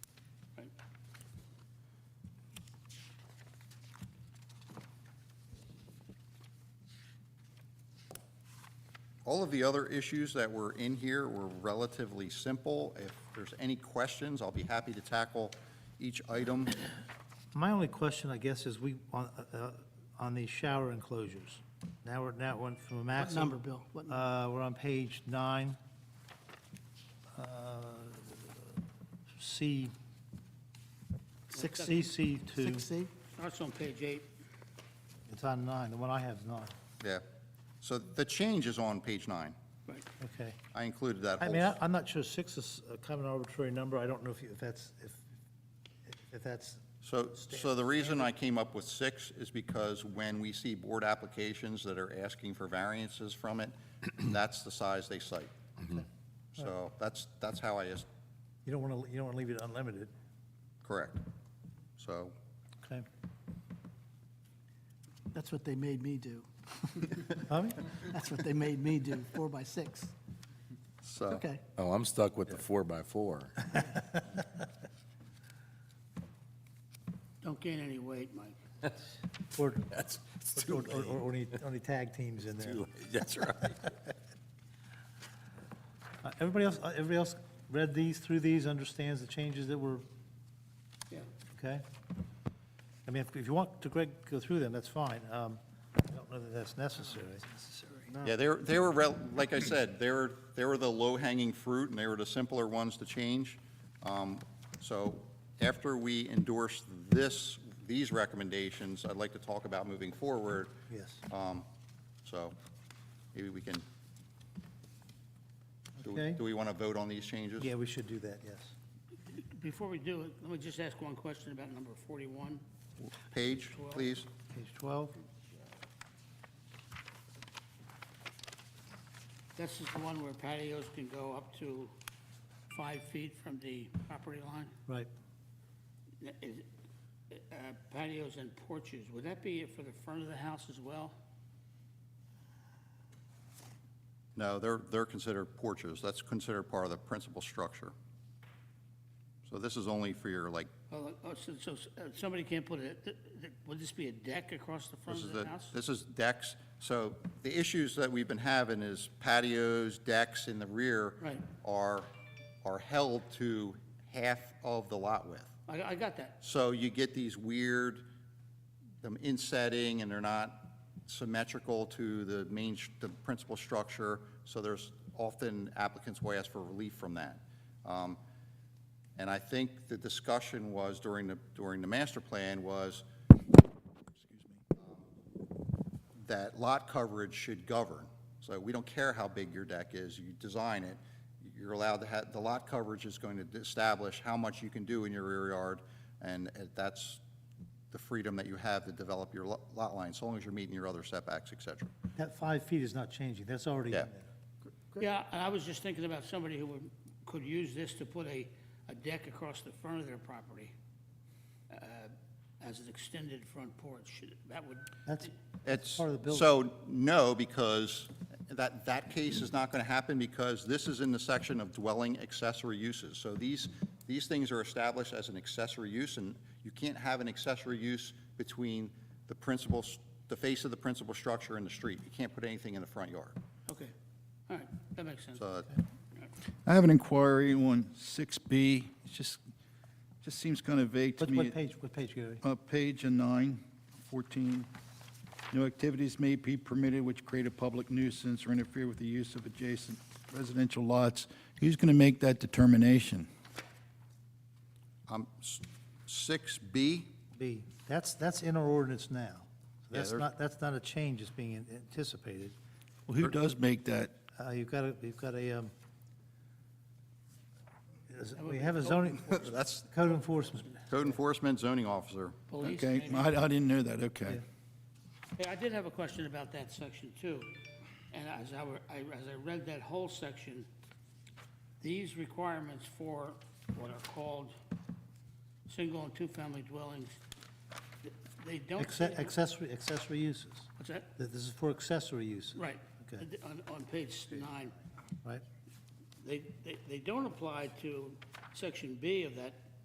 All of the other issues that were in here were relatively simple. If there's any questions, I'll be happy to tackle each item. My only question, I guess, is we, on, uh, on the shower enclosures. Now we're, now one from a What maximum. number, Bill? What number? Uh, we're on page nine. Uh, C, six, CC two, 6C? That's Oh, on page eight. it's on nine, the one I have is nine, Yeah. So the change is on page nine. Right. okay. I included that I whole. mean, I- I'm not sure six is a kind of an arbitrary number, I don't know if you, if that's, if, if that's, So, so the reason I came up with six is because when we see board applications that are asking for variances from it, that's the size they cite. Mm-hmm. So that's, that's how I is, you don't want to, you don't want to leave it unlimited, correct. So, okay? That's what they made me do. Tommy? That's what they made me do, four by six. so. Okay. Oh, I'm stuck with the four by four. Don't gain any weight, Mike. Or, That's, it's or, too or- or any, any tag teams in there? late. That's right. Uh, Everybody else, uh, everybody else read these, through these, understands the changes that were, Yeah. okay? I mean, if- if you want to, Greg, go through them, that's fine. Um, I don't know that that's necessary. Yeah, they were, they were, rel- like I said, they were, they were the low-hanging fruit, and they were the simpler ones to change. Um, So after we endorse this, these recommendations, I'd like to talk about moving forward. Yes. Um, So maybe we can, do we- Okay. do we want to vote on these changes? Yeah, we should do that, yes. Before we do it, let me just ask one question about number 41. Page, please. Page 12, This is the one where patios can go up to five feet from the property line? right. N- is it- uh, Patios and porches, would that be for the front of the house as well? No, they're, they're considered porches. That's considered part of the principal structure. So this is only for your, like, Oh, oh, So so, uh, somebody can't put a, th- th- would this be a deck across the front This of is the the, house? this is decks. So the issues that we've been having is patios, decks in the rear Right. are, are held to half of the lot width. I I got that. So you get these weird, them insetting, and they're not symmetrical to the main, sh- the principal structure, so there's often applicants will ask for relief from that. Um, And I think the discussion was during the, during the master plan was that lot coverage should govern. So we don't care how big your deck is, you design it, you're allowed to have, the lot coverage is going to establish how much you can do in your rear yard, and uh, that's the freedom that you have to develop your lo- lot line, so long as you're meeting your other setbacks, et cetera. That five feet is not changing, that's already Yeah. in there. Yeah, and I was just thinking about somebody who would, could use this to put a, a deck across the front of their property uh, as an extended front porch. That would, That's, It's, Part of the building. so, no, because that, that case is not going to happen because this is in the section of dwelling accessory uses. So these, these things are established as an accessory use, and you can't have an accessory use between the principal, s- the face of the principal structure and the street. You can't put anything in the front yard. okay, all right, that makes sense. So I have an inquiry on 6B. It just, just seems kind of vague to what, me. what page, what page, Gary? Uh, Page 9, 14. No activities may be permitted which create a public nuisance or interfere with the use of adjacent residential lots. Who's going to make that determination? um, s- 6B, B, that's, that's in our ordinance now. So Yeah, That's there- not, that's not a change that's being anticipated. Well, who does make that? Uh, You've got a, you've got a, um, is- we have a zoning, that's code enforcement. code enforcement zoning officer. Police, Okay, maybe? I I didn't know that, okay. Hey, I did have a question about that section too. And as I were, I, as I read that whole section, these requirements for what are called single and two-family dwellings, th- they don't. Acce- say- Accessory, accessory uses. What's that? That This is for accessory uses, Right. Okay. On, on page nine, right? they, they- they don't apply to section B of that